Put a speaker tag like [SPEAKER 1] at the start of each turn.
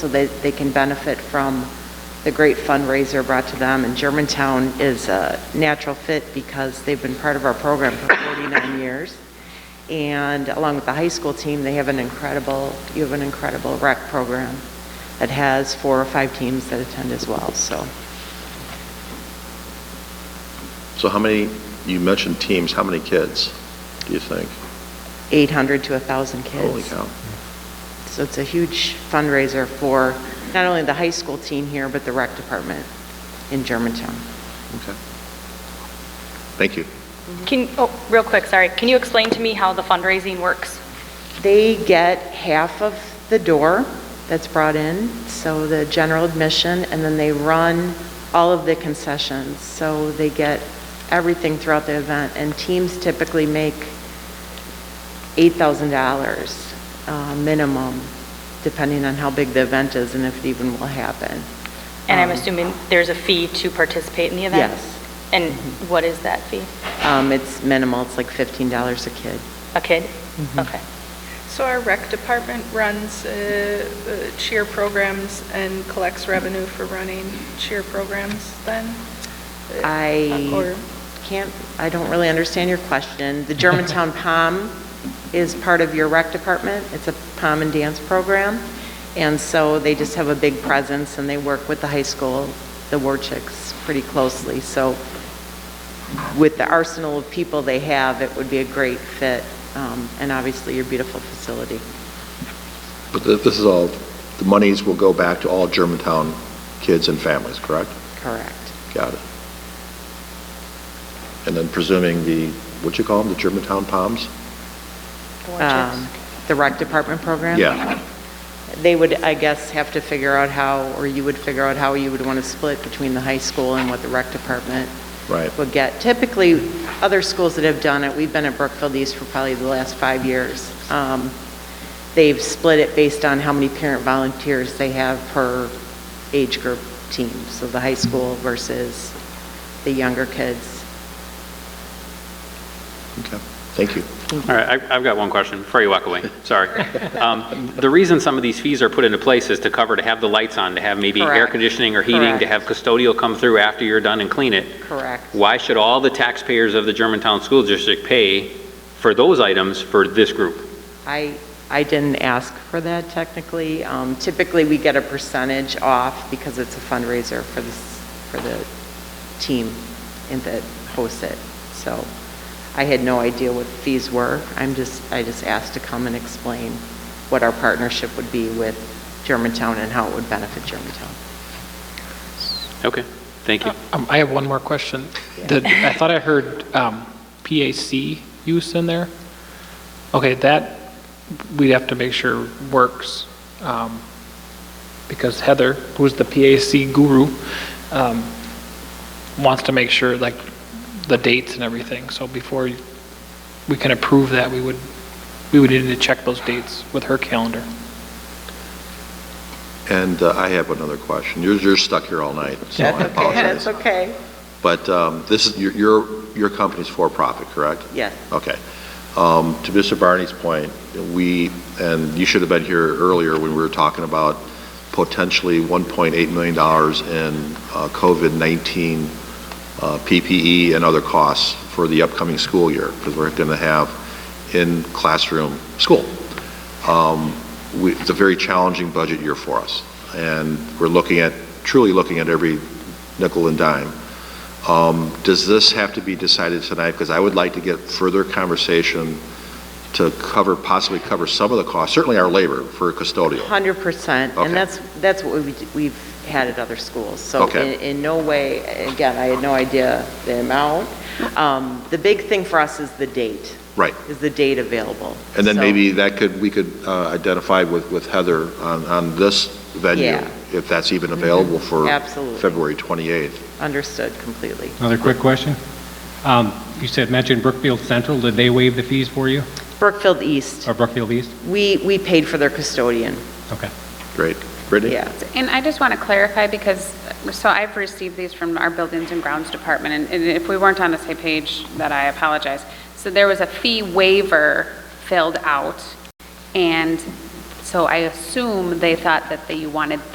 [SPEAKER 1] so that they can benefit from the great fundraiser brought to them. And Germantown is a natural fit because they've been part of our program for 49 years. And along with the high school team, they have an incredible, you have an incredible rec program that has four or five teams that attend as well, so.
[SPEAKER 2] So how many, you mentioned teams, how many kids, do you think?
[SPEAKER 1] 800 to 1,000 kids.
[SPEAKER 2] Holy cow.
[SPEAKER 1] So it's a huge fundraiser for not only the high school team here, but the rec department in Germantown.
[SPEAKER 2] Okay. Thank you.
[SPEAKER 3] Can, oh, real quick, sorry. Can you explain to me how the fundraising works?
[SPEAKER 1] They get half of the door that's brought in, so the general admission, and then they run all of the concessions. So they get everything throughout the event, and teams typically make $8,000 uh, minimum, depending on how big the event is and if it even will happen.
[SPEAKER 3] And I'm
[SPEAKER 1] Um,
[SPEAKER 3] assuming there's a fee to participate in the event?
[SPEAKER 1] Yes. Mm-hmm.
[SPEAKER 3] And what is that fee?
[SPEAKER 1] Um, It's minimal, it's like $15 a kid.
[SPEAKER 3] A kid?
[SPEAKER 1] Mm-hmm.
[SPEAKER 3] Okay.
[SPEAKER 4] So our rec department runs uh, uh, cheer programs and collects revenue for running cheer programs then?
[SPEAKER 1] I
[SPEAKER 4] Or-
[SPEAKER 1] can't, I don't really understand your question. The Germantown POM is part of your rec department. It's a POM and dance program. And so they just have a big presence and they work with the high school, the War Chicks, pretty closely. So with the arsenal of people they have, it would be a great fit. um, And obviously, your beautiful facility.
[SPEAKER 2] But th- this is all, the monies will go back to all Germantown kids and families, correct?
[SPEAKER 1] Correct.
[SPEAKER 2] Got it. And then presuming the, what you call them, the Germantown Palms?
[SPEAKER 3] The watches.
[SPEAKER 1] Um, The rec department program?
[SPEAKER 2] Yeah.
[SPEAKER 1] They would, I guess, have to figure out how, or you would figure out how you would want to split between the high school and what the rec department
[SPEAKER 2] Right.
[SPEAKER 1] would get. Typically, other schools that have done it, we've been at Brookfield East for probably the last five years. um, They've split it based on how many parent volunteers they have per age group team, so the high school versus the younger kids.
[SPEAKER 2] Okay. Thank you.
[SPEAKER 5] All right, I- I've got one question before you walk away, sorry. Um, The reason some of these fees are put into place is to cover, to have the lights on, to have maybe air
[SPEAKER 1] Correct.
[SPEAKER 5] conditioning or heating, to
[SPEAKER 1] Correct.
[SPEAKER 5] have custodial come through after you're done and clean it.
[SPEAKER 1] Correct.
[SPEAKER 5] Why should all the taxpayers of the Germantown School District pay for those items for this group?
[SPEAKER 1] I, I didn't ask for that technically. Um, Typically, we get a percentage off because it's a fundraiser for the, s- for the team in that hosts it. So I had no idea what fees were. I'm just, I just asked to come and explain what our partnership would be with Germantown and how it would benefit Germantown.
[SPEAKER 5] Okay, thank you.
[SPEAKER 6] Um, I have one more question. Did, I thought I heard, um, PAC use in there. Okay, that, we'd have to make sure works, um, because Heather, who's the PAC guru, um, wants to make sure, like, the dates and everything. So before we can approve that, we would, we would need to check those dates with her calendar.
[SPEAKER 2] And uh, I have another question. You're, you're stuck here all night, so I apologize.
[SPEAKER 1] That's okay.
[SPEAKER 2] But um, this is, your- your, your company's for-profit, correct?
[SPEAKER 1] Yes.
[SPEAKER 2] Okay. Um, To Mr. Barney's point, we, and you should have been here earlier when we were talking about potentially $1.8 million in uh, COVID-19 uh, PPE and other costs for the upcoming school year, because we're going to have in-classroom school. Um, we- It's a very challenging budget year for us, and we're looking at, truly looking at every nickel and dime. Um, Does this have to be decided tonight? Because I would like to get further conversation to cover, possibly cover some of the costs, certainly our labor for custodial.
[SPEAKER 1] Hundred percent,
[SPEAKER 2] Okay.
[SPEAKER 1] and that's, that's what we, we've had at other schools. So
[SPEAKER 2] Okay.
[SPEAKER 1] in, in no way, again, I had no idea the amount. Um, the big thing for us is the date.
[SPEAKER 2] Right.
[SPEAKER 1] Is the date available.
[SPEAKER 2] And then
[SPEAKER 1] So-
[SPEAKER 2] maybe that could, we could uh, identify with, with Heather on, on this venue,
[SPEAKER 1] Yeah. Mm-hmm.
[SPEAKER 2] if that's even available for
[SPEAKER 1] Absolutely.
[SPEAKER 2] February 28th.
[SPEAKER 1] Understood completely.
[SPEAKER 7] Another quick question. Um, You said, mentioned Brookfield Central, did they waive the fees for you,
[SPEAKER 1] Brookfield East,
[SPEAKER 7] or Brookfield East?
[SPEAKER 1] we, we paid for their custodian,
[SPEAKER 7] Okay.
[SPEAKER 2] Great. Brittany?
[SPEAKER 1] yeah.
[SPEAKER 8] And I just want to clarify, because, so I've received these from our Buildings and Grounds Department, and- and if we weren't on the same page, that I apologize. So there was a fee waiver filled out, and So I assume they thought that they wanted